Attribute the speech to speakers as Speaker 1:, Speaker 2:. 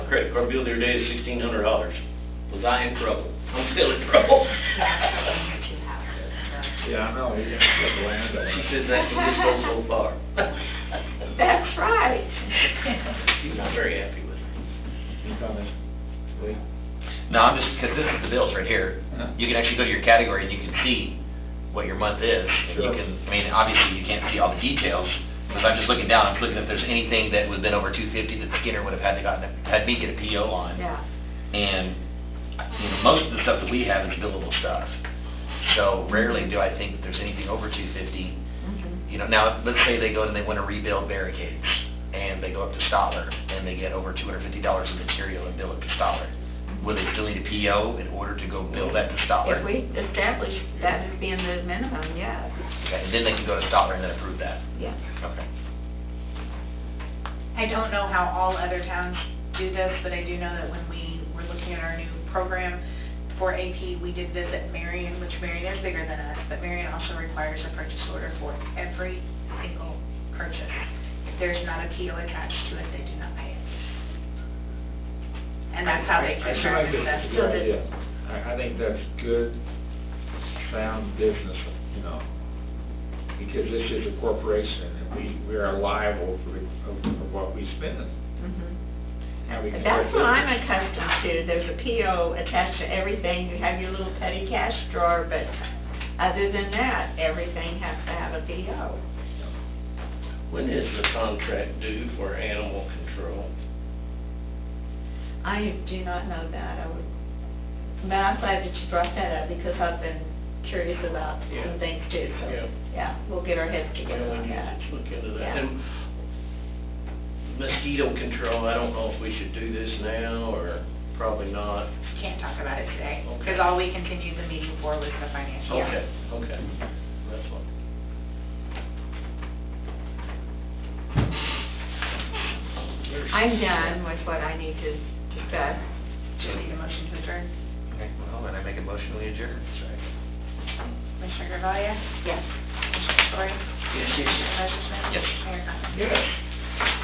Speaker 1: credit card bill the other day is sixteen hundred dollars. Was I in trouble? I'm still in trouble.
Speaker 2: Yeah, I know, you're gonna get the land. uh,
Speaker 1: She said that can just go so far.
Speaker 3: That's right.
Speaker 1: She's not very happy with it.
Speaker 2: You coming? Wait.
Speaker 4: No, I'm just, because this is the bills right here.
Speaker 2: Huh?
Speaker 4: You can actually go to your category and you can see what your month is. And you
Speaker 2: Sure.
Speaker 4: can, I mean, obviously you can't see all the details, but I'm just looking down, I'm looking if there's anything that would've been over two fifty that Skinner would've had to gotten, had me get a PO on.
Speaker 3: Yeah.
Speaker 4: And, you know, most of the stuff that we have is billable stuff. So rarely do I think that there's anything over two fifty.
Speaker 3: Mhm.
Speaker 4: You know, now, let's say they go and they wanna rebuild barricades, and they go up to Stoller, and they get over two hundred fifty dollars of material and bill it to Stoller. Will they still need a PO in order to go bill that to Stoller?
Speaker 3: If we establish that as being the minimum, yes,
Speaker 4: Okay, and then they can go to Stoller and then approve that.
Speaker 3: yes.
Speaker 4: Okay.
Speaker 5: I don't know how all other towns do this, but I do know that when we were looking at our new program for AP, we did visit Marion, which Marion is bigger than us, but Marion also requires a purchase order for every single purchase. If there's not a PO attached to it, they do not pay it. And that's how
Speaker 2: I
Speaker 5: they
Speaker 2: feel like
Speaker 5: determine
Speaker 2: that's a
Speaker 5: this.
Speaker 2: good idea. I, I think that's good, sound business, you know, because this is a corporation, and we, we are liable for, for what we spend,
Speaker 3: Mhm.
Speaker 2: how we conduct
Speaker 3: That's what I'm
Speaker 2: business.
Speaker 3: accustomed to, there's a PO attached to everything, you have your little petty cash drawer, but other than that, everything has to have a PO.
Speaker 1: When is the contract due for animal control?
Speaker 3: I do not know that, I would, but I'm glad that you brought that up, because I've been curious about
Speaker 1: Yeah.
Speaker 3: some things too, so,
Speaker 1: Yeah.
Speaker 3: yeah, we'll get our heads together
Speaker 1: Well, we
Speaker 3: on
Speaker 1: need
Speaker 3: that.
Speaker 1: to Look into that.
Speaker 3: Yeah.
Speaker 1: And mosquito control, I don't know if we should do this now, or probably not.
Speaker 5: Can't talk about it today,
Speaker 1: Okay.
Speaker 5: because all we continued the meeting for was the financial.
Speaker 1: Okay, okay. That's what.
Speaker 3: I'm done with what I need to discuss.
Speaker 5: Do you need a motion to adjourn?
Speaker 4: Okay, well, then I make a motion, we adjourn.
Speaker 5: Commissioner Gravaya?
Speaker 3: Yes.
Speaker 5: Commissioner Story?
Speaker 1: Yes, yes, yes.
Speaker 5: Commissioner Messersohn?
Speaker 4: Yes.
Speaker 5: Mayor Condon?
Speaker 2: Yes.